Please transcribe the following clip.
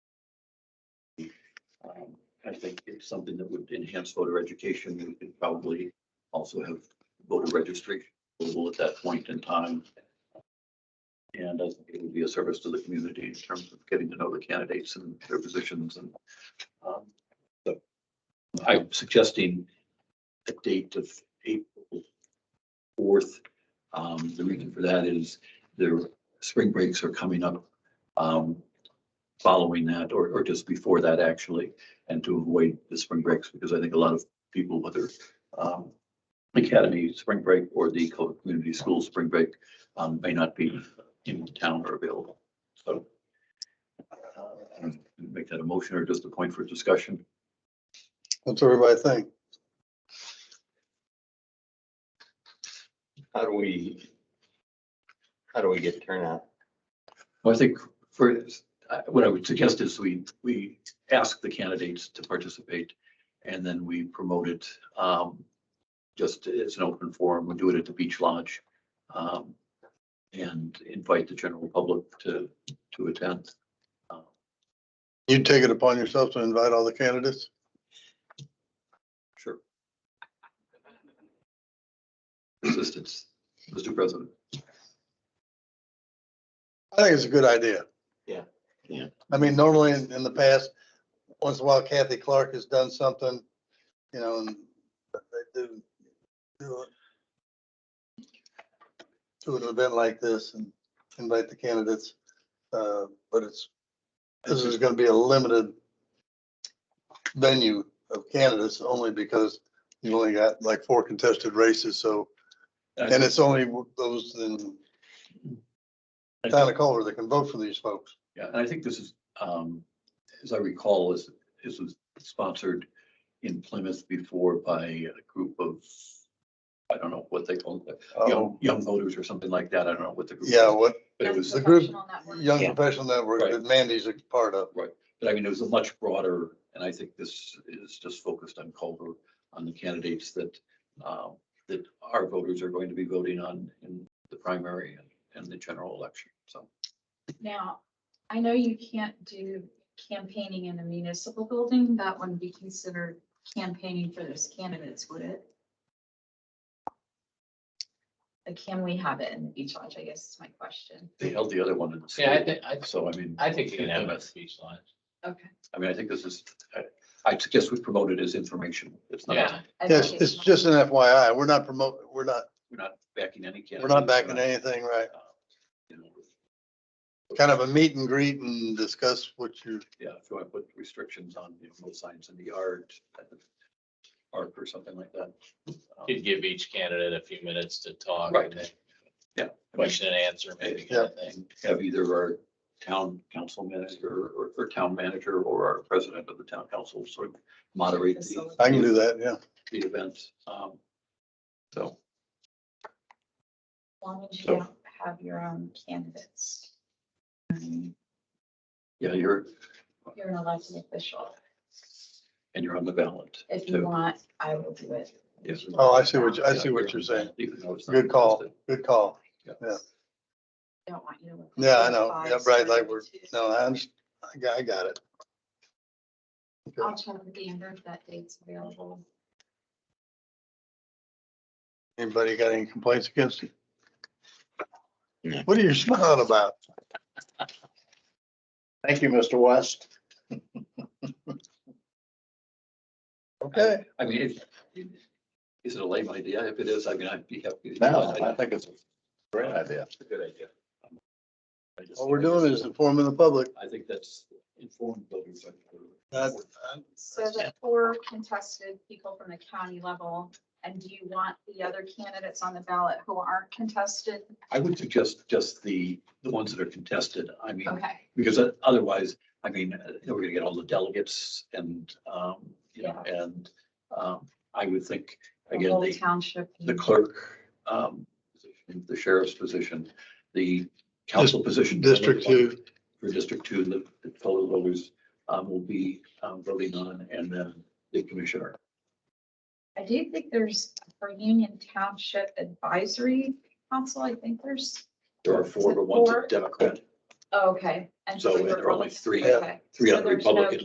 Um, I think it's something that would enhance voter education. We could probably also have voter registration available at that point in time. And I think it would be a service to the community in terms of getting to know the candidates and their positions and um, so I'm suggesting a date of April fourth. Um, the reason for that is the spring breaks are coming up. Um, following that or, or just before that actually, and to avoid the spring breaks, because I think a lot of people, whether um, academy spring break or the co- community school spring break, um, may not be in town or available. So uh, I don't know, make that a motion or just a point for discussion. What's everybody think? How do we? How do we get turnout? Well, I think for, I- what I would suggest is we, we ask the candidates to participate and then we promote it um, just as an open forum. We do it at the Beach Lodge um, and invite the general public to, to attend. You take it upon yourself to invite all the candidates? Sure. Assistance, Mr. President. I think it's a good idea. Yeah. Yeah. I mean, normally in, in the past, once in a while Kathy Clark has done something, you know, and they do, do it- do an event like this and invite the candidates. Uh, but it's, this is gonna be a limited venue of candidates only because you've only got like four contested races, so, and it's only those in town of Culver that can vote for these folks. Yeah, and I think this is, um, as I recall, this, this was sponsored in Plymouth before by a group of, I don't know what they call it, young, Um, young voters or something like that. I don't know what the group. Yeah, was, what But it Young was, The group- Professional Network. Young Yeah. Professional Network Right. that Mandy's a part of. but I mean, it was a much broader, and I think this is just focused on Culver, on the candidates that, um, that our voters are going to be voting on in the primary and, and the general election. So Now, I know you can't do campaigning in a municipal building. That wouldn't be considered campaigning for those candidates, would it? Like, can we have it in the beach lodge? I guess is my question. they held the other one in the Yeah, I state. think, I, So I mean. I think you can have Yeah. a speech line. Okay. I mean, I think this is, I- I suggest we promote it as information. It's not, Yeah, Yes, it's just an FYI. We're not promoting, we're not, we're not backing any we're candidates. not backing anything, right? you know, Kind of a meet and greet and discuss what you, Yeah, if you want to put restrictions on, you know, no signs in the yard, at the park or something like that. Um, could give each candidate a few minutes to talk. Right. and Yeah. Question and answer maybe kind of thing. and Have either our town council manager or, or town manager or our president of the town council sort of moderate the. I can do that, yeah. The events. Um, So, As long as you So- don't have your own candidates. Um, yeah, you're, You're an elected official. and you're on the ballot. If too. you want, I will do it. Yes. Oh, I see what, you- I Yeah, see what on you're the saying. ballot, even though it's not Good call, listed. good call. Don't want you to. look like Yeah, I you're know. biased Yeah, right, or like we're, anything. no, I understand. I got, I got it. I'll check with Amber if that date's available. Anybody got any complaints against it? No. What are you smiling about? Thank you, Mr. West. Okay, I mean, if, is it a lame idea? If it is, I mean, I'd be happy. to do No, it. I think it's a great idea. It's a good idea. I just- all we're doing is informing the public. I think that's informed voters. That- So the four contested people from the county level, and do you want the other candidates on the ballot who aren't contested? I would suggest just the, the ones that are contested. I mean, Okay, because otherwise, I mean, uh, we're gonna get all the delegates and, um, you know, and, um, I would think, the again, whole the, township. the clerk, um, position, the sheriff's position, the council position. District two. For District Two, the the fellow voters, um, will be, um, voting on, and then the commissioner. I do think there's for Union Township Advisory Council, I think there's, oh, There are four, but one's a Democrat, okay. and So, and there are only Republican. three- Okay. three So on the there's no Republican